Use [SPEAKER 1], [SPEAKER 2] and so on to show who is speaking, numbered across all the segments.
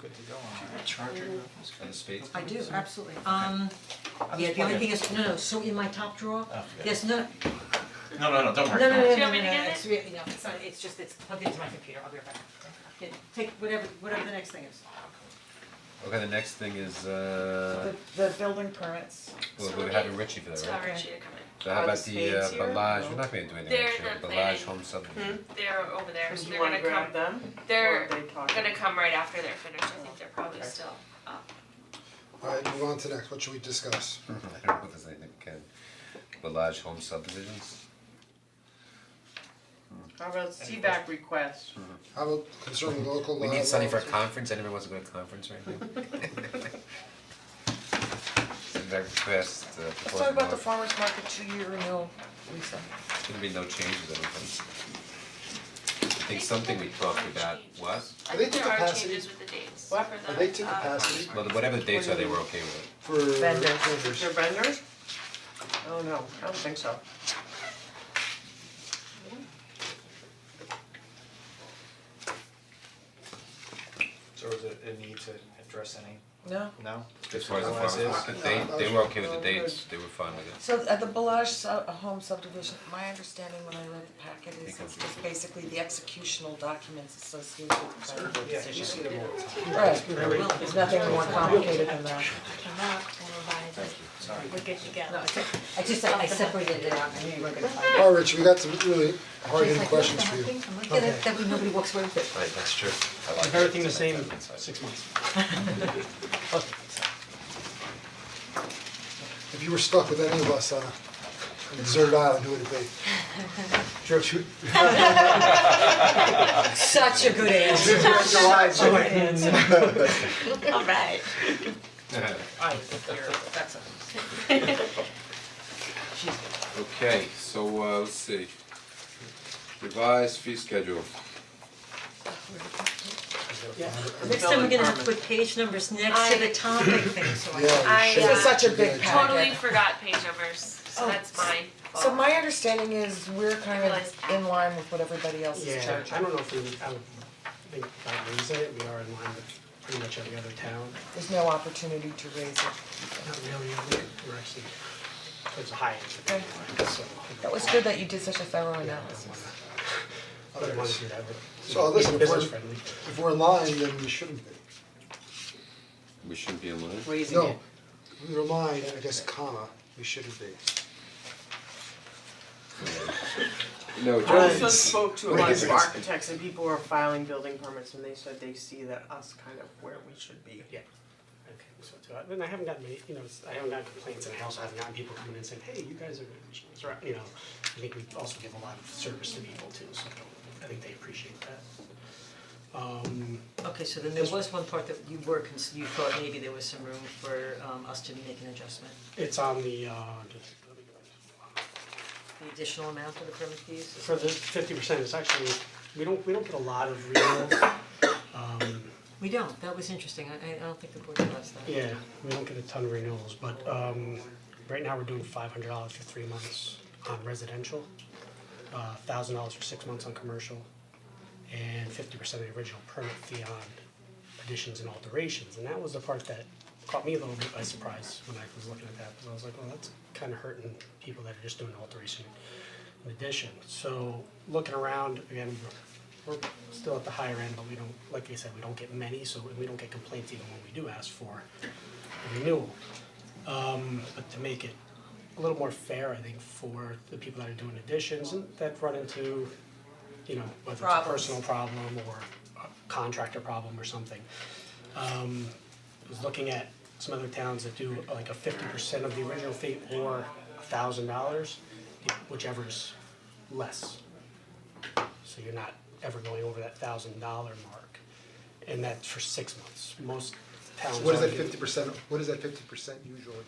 [SPEAKER 1] go on, a charger,
[SPEAKER 2] Mm.
[SPEAKER 1] those kind of spades.
[SPEAKER 2] I do,
[SPEAKER 1] companies?
[SPEAKER 2] absolutely, um, yeah, the only thing is, no, no, so in my top drawer,
[SPEAKER 1] Oh, forget it.
[SPEAKER 2] there's no, no,
[SPEAKER 1] No, no, no, don't
[SPEAKER 2] no,
[SPEAKER 1] worry. don't
[SPEAKER 2] no,
[SPEAKER 1] worry.
[SPEAKER 2] no,
[SPEAKER 3] Do you
[SPEAKER 2] no,
[SPEAKER 3] want me
[SPEAKER 2] no,
[SPEAKER 3] to get it?
[SPEAKER 2] it's re- no, it's not, it's just, it's plugged into my computer, I'll be right back. Yeah, Take whatever, whatever the next thing is.
[SPEAKER 1] Okay, the next thing is, uh,
[SPEAKER 4] The, the building permits,
[SPEAKER 1] well, we're having Richie for that,
[SPEAKER 3] Tell
[SPEAKER 1] right?
[SPEAKER 3] Richie to come in.
[SPEAKER 1] So how
[SPEAKER 4] Are the
[SPEAKER 1] about the uh,
[SPEAKER 4] spades here?
[SPEAKER 1] Balaj, we're not gonna do anything
[SPEAKER 3] They're
[SPEAKER 1] next year,
[SPEAKER 3] not
[SPEAKER 1] the
[SPEAKER 3] planning. Hmm?
[SPEAKER 1] Balaj Home Subdivision.
[SPEAKER 3] They're over there, so
[SPEAKER 4] do
[SPEAKER 3] they're
[SPEAKER 4] you wanna
[SPEAKER 3] gonna come,
[SPEAKER 4] grab them?
[SPEAKER 3] they're
[SPEAKER 4] Or they talk?
[SPEAKER 3] gonna come right after they're finished, I think they're probably still up.
[SPEAKER 5] Alright, move on to next, what should we discuss?
[SPEAKER 1] I don't know if there's anything we can, Balaj Home Subdivisions,
[SPEAKER 4] How about CBAC requests?
[SPEAKER 5] How about concerning local law?
[SPEAKER 1] we need Sunny for a
[SPEAKER 5] laws?
[SPEAKER 1] conference, anyone wants to go to a conference right now? Send back request, uh,
[SPEAKER 4] Let's talk
[SPEAKER 1] proposed
[SPEAKER 4] about the
[SPEAKER 1] law,
[SPEAKER 4] farmer's market two-year renewal, Lisa.
[SPEAKER 1] there's gonna be no changes, I don't think. I think something we talked about, what?
[SPEAKER 3] I
[SPEAKER 5] Are they
[SPEAKER 3] think
[SPEAKER 5] to
[SPEAKER 3] there are
[SPEAKER 5] capacity?
[SPEAKER 3] changes with the dates for
[SPEAKER 4] What?
[SPEAKER 3] the,
[SPEAKER 5] Are they to
[SPEAKER 3] uh,
[SPEAKER 5] capacity
[SPEAKER 1] Well, whatever the dates are, they were okay with it.
[SPEAKER 5] for
[SPEAKER 4] Vendors.
[SPEAKER 5] vendors?
[SPEAKER 4] They're vendors? Oh, no, I don't think so.
[SPEAKER 6] So is it a need to address any,
[SPEAKER 4] No.
[SPEAKER 6] no?
[SPEAKER 1] As far as the
[SPEAKER 6] Otherwise
[SPEAKER 1] farmers,
[SPEAKER 6] it's-
[SPEAKER 1] but they they were okay with the dates, they were fine with it.
[SPEAKER 7] So at the Balaj su- home subdivision, my understanding when I read the packet is it's just basically the executional documents associated with the planning board
[SPEAKER 6] Yeah, you
[SPEAKER 7] decision.
[SPEAKER 6] see them all the time.
[SPEAKER 7] Right, there's nothing more complicated than that.
[SPEAKER 2] No, it's, I just, I separated it out, I knew you weren't gonna find it.
[SPEAKER 5] Alright, Rich, we got some really hard
[SPEAKER 2] She's
[SPEAKER 5] hitting
[SPEAKER 2] like, "What's
[SPEAKER 5] questions for
[SPEAKER 2] that
[SPEAKER 5] you.
[SPEAKER 2] thing?" I'm like, "Yeah, that, that way nobody walks away with it.
[SPEAKER 1] Right, that's true. I like it.
[SPEAKER 6] Everything the
[SPEAKER 1] It's
[SPEAKER 6] same,
[SPEAKER 1] like that inside.
[SPEAKER 6] six months.
[SPEAKER 5] If you were stuck with any of us on a deserted island, who would it be? George, who?
[SPEAKER 2] Such a good answer.
[SPEAKER 7] Alright.
[SPEAKER 4] I hear, that's a.
[SPEAKER 8] Okay, so uh let's see. Revised fee schedule.
[SPEAKER 2] Next time we're gonna have to put page numbers next to the
[SPEAKER 3] I-
[SPEAKER 2] topic thing, so I.
[SPEAKER 5] Yeah,
[SPEAKER 3] I,
[SPEAKER 5] you should.
[SPEAKER 3] uh, This is
[SPEAKER 7] such a big
[SPEAKER 5] Yeah,
[SPEAKER 7] pack.
[SPEAKER 3] Totally forgot page numbers, so
[SPEAKER 7] Oh.
[SPEAKER 3] that's mine.
[SPEAKER 7] So my understanding is we're kind of in line with what everybody else is
[SPEAKER 9] Yeah,
[SPEAKER 7] charging.
[SPEAKER 9] I don't know if we, I would think about raising it, we are in line with pretty much every other town,
[SPEAKER 7] There's no opportunity to raise it.
[SPEAKER 9] not really, I think we're actually, towards the high end of the line, so.
[SPEAKER 7] That was good that you did such a thorough analysis.
[SPEAKER 9] But I wanna do that, but.
[SPEAKER 5] So uh, listen, if
[SPEAKER 9] Business
[SPEAKER 5] we're,
[SPEAKER 9] friendly.
[SPEAKER 5] if we're in line, then we shouldn't be.
[SPEAKER 8] We shouldn't be in line.
[SPEAKER 4] Raising
[SPEAKER 5] No, if we were in line, I guess comma, we shouldn't be.
[SPEAKER 8] No,
[SPEAKER 4] I
[SPEAKER 8] Johnny.
[SPEAKER 4] also spoke to a bunch of architects and people who are filing building permits and they said they see that us kind of where we should be.
[SPEAKER 9] Yeah. Okay, so it's about- and I haven't gotten many, you know, it's- I haven't gotten complaints and I also haven't gotten people coming in saying, hey, you guys are, it's right," you know, I think we also give a lot of service to people too, so I think they appreciate that. Um,
[SPEAKER 2] Okay, so then there was one part that you were, cons- you thought maybe there was some room for um us to make an adjustment,
[SPEAKER 9] it's on the, uh, just, let me go.
[SPEAKER 2] the additional amount of the permit fees?
[SPEAKER 9] for the fifty percent, it's actually, we don't, we don't get a lot of renewals. Um,
[SPEAKER 2] We don't, that was interesting, I I- I don't think the board realized that.
[SPEAKER 9] yeah, we don't get a ton of renewals, but um, right now we're doing five hundred dollars for three months on residential, uh, thousand dollars for six months on commercial, and fifty percent of the original permit fee on additions and alterations, and that was the part that caught me a little bit by surprise when I was looking at that, because I was like, well, that's kinda hurting people that are just doing alteration in addition. So looking around, again, we're we're still at the higher end, but we don't, like I said, we don't get many, so we don't get complaints even when we do ask for a renewal. Um, but to make it a little more fair, I think, for the people that are doing additions and that run into, you know, whether it's a
[SPEAKER 7] Problems.
[SPEAKER 9] personal problem or a contractor problem or something. Um, I was looking at some other towns that do like a fifty percent of the original fee or a thousand dollars, whichever's less. So you're not ever going over that thousand dollar mark, and that's for six months, most towns.
[SPEAKER 5] What is that
[SPEAKER 9] only do-
[SPEAKER 5] fifty percent, what is that fifty percent usually?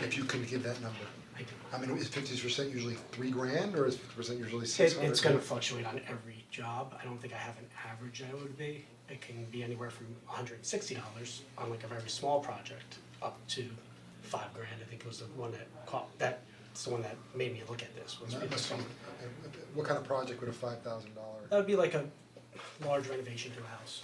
[SPEAKER 5] If you can give that number,
[SPEAKER 9] I do.
[SPEAKER 5] I mean, is fifty percent usually three grand or is fifty percent usually six
[SPEAKER 9] It,
[SPEAKER 5] hundred?
[SPEAKER 9] it's gonna fluctuate on every job, I don't think I have an average I would be, it can be anywhere from hundred and sixty dollars on like a very small project up to five grand, I think was the one that caught, that's the one that made me look at this, was
[SPEAKER 5] That must be- what kind of project would a five thousand dollar?
[SPEAKER 9] That would be like a large renovation to a house,